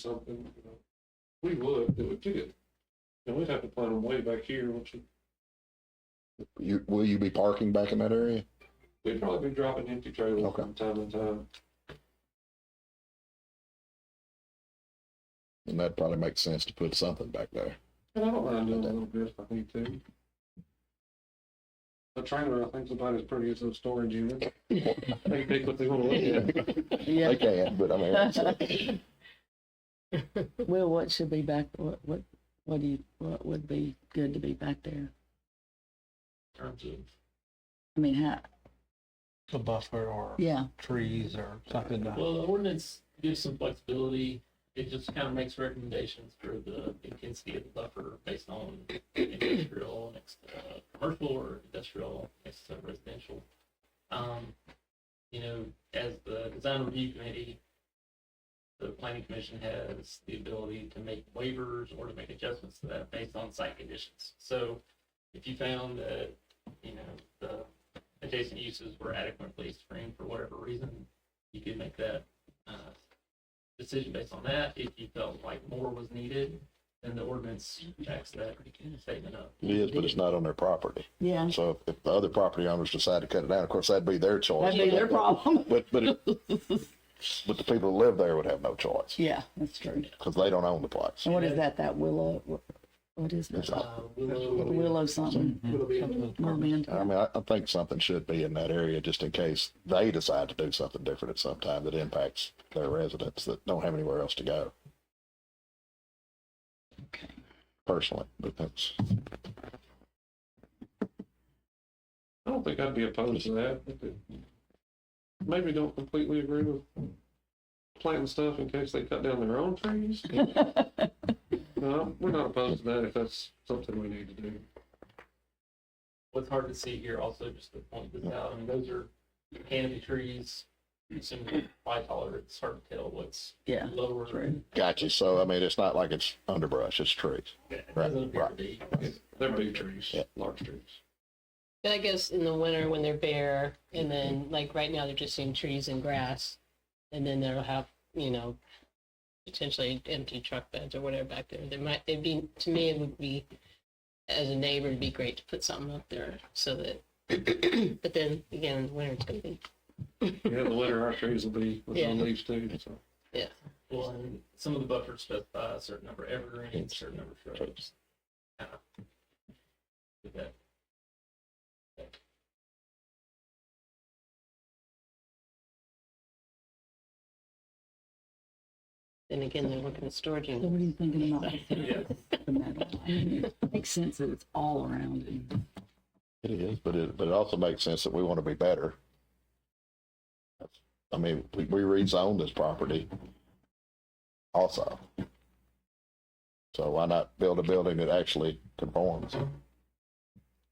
something, you know, we would do it too. And we'd have to plan them way back here, which You, will you be parking back in that area? we'd probably be dropping empty trailers Okay. from time to time. And that probably makes sense to put something back there. And I don't mind doing a little bit if I need to. The trailer, I think, is about as pretty as a storage unit. They take what they want to look at. They Yeah, can, but I mean, it's- well, what should be back, what, what, what do you, what would be good to be back there? Terms of I mean, how, a buffer or yeah, trees or something. to- Well, the ordinance gives some flexibility. It just kind of makes recommendations for the intensity of the buffer based on industrial next, uh, commercial or industrial next to residential. Um, you know, as the design review committee, the planning commission has the ability to make waivers or to make adjustments to that based on site conditions. So if you found that, you know, the adjacent uses were adequately screened for whatever reason, you could make that uh, decision based on that. If you felt like more was needed, then the ordinance backs that statement up. it is, but it's not on their property. yeah, So if- if the other property owners decide to cut it down, of course, that'd be their choice. that'd be their problem. But, but, it- but the people who live there would have no choice Yeah, that's true. because they don't own the place. And what is that, that willow, what- what is It's that? all- Uh, Willow, Willow something, merman, I mean, I, I think something should be in that area just in case they decide to do something different at some time that impacts their residents that don't have anywhere else to go. Okay. Personally, but that's, I don't think I'd be opposed to that. if it- Maybe don't completely agree with planting stuff in case they cut down their own trees. No, we're not opposed to that if that's something we need to do. what's hard to see here also, just to point this out, I mean, those are canopy trees. Assuming by taller, it's hard to tell what's yeah, lower. true. got you. So, I mean, it's not like it's underbrush, it's trees. It Right, doesn't appear to right. be. They're big trees, Yeah. large trees. But I guess in the winter when they're bare, and then like right now they're just seeing trees and grass, and then they'll have you know potentially empty truck beds or whatever back there. They might it'd be to me it would be as a neighbor it'd be great to put something up there so that. but then again in the winter it's gonna be Yeah, in the winter, our trees will be with no Yeah. leaves too, so. Well, and some of the buffers specify a certain number of evergreens, certain number of shrubs. Kind of. Did that. then again they're looking at storage So units. what are you thinking about? Yeah. the metal? I mean, it Makes sense that it's all around and It is, but it, but it also makes sense that we want to be better. I mean, we, we rezoned this property also. So why not build a building that actually conforms?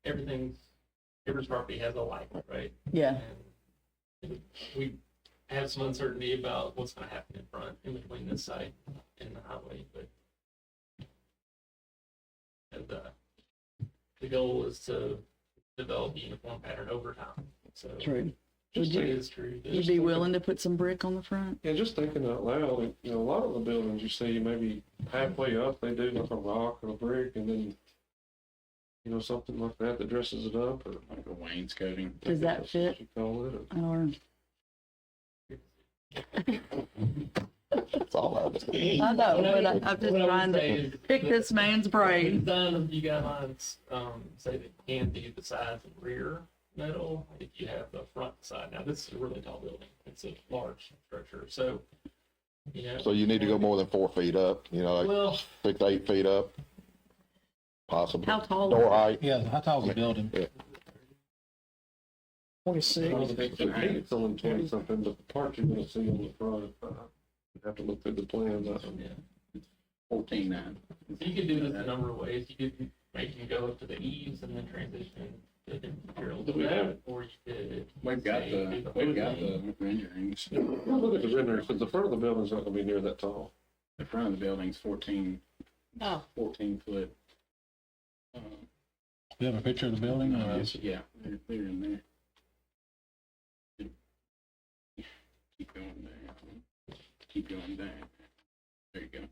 Everything's, every property has a life, right? yeah, And we have some uncertainty about what's gonna happen in front, in between this site and the highway, but and the, the goal is to develop a uniform pattern over time, so. true. Just Would you- It thinking, is true. that- You'd be willing to put some brick on the front? yeah, just thinking out loud, like, you know, a lot of the buildings you see, maybe halfway up, they do like a rock or a brick and then, you know, something like that that dresses it up or. Like a wainscoting. Does that's that what fit? You call it, or Or, That's all I was. I know, but I- I'm just What I would trying to say is pick that- this man's brain. None of you guidelines, um, say that can be the sides and rear metal if you have the front side. Now, this is a really tall building. It's a large structure, so, you know. So you need to go more than four feet up, you know, like Well, six, to eight feet up, possibly. How tall? Door height. Yeah, how tall is the building? I Twenty-six. don't think they paid it till in twenty something, but the part you're gonna see on the front, uh, you have to look through the plans, uh, yeah. Fourteen nine. So you could do this a number of ways. You could make them go up to the eaves and then transition to different materials. Do we have it? Or you could. We've got the, we've got the renderings. Well, look at the rendering, because the front of the building's not gonna be near that tall. The front of the building's fourteen, Oh, fourteen foot. Uh, Do you have a picture of Mm-hmm. the building? or- it's- Uh, Yeah, they're, they're in there. Keep going there. Keep going down. There you go.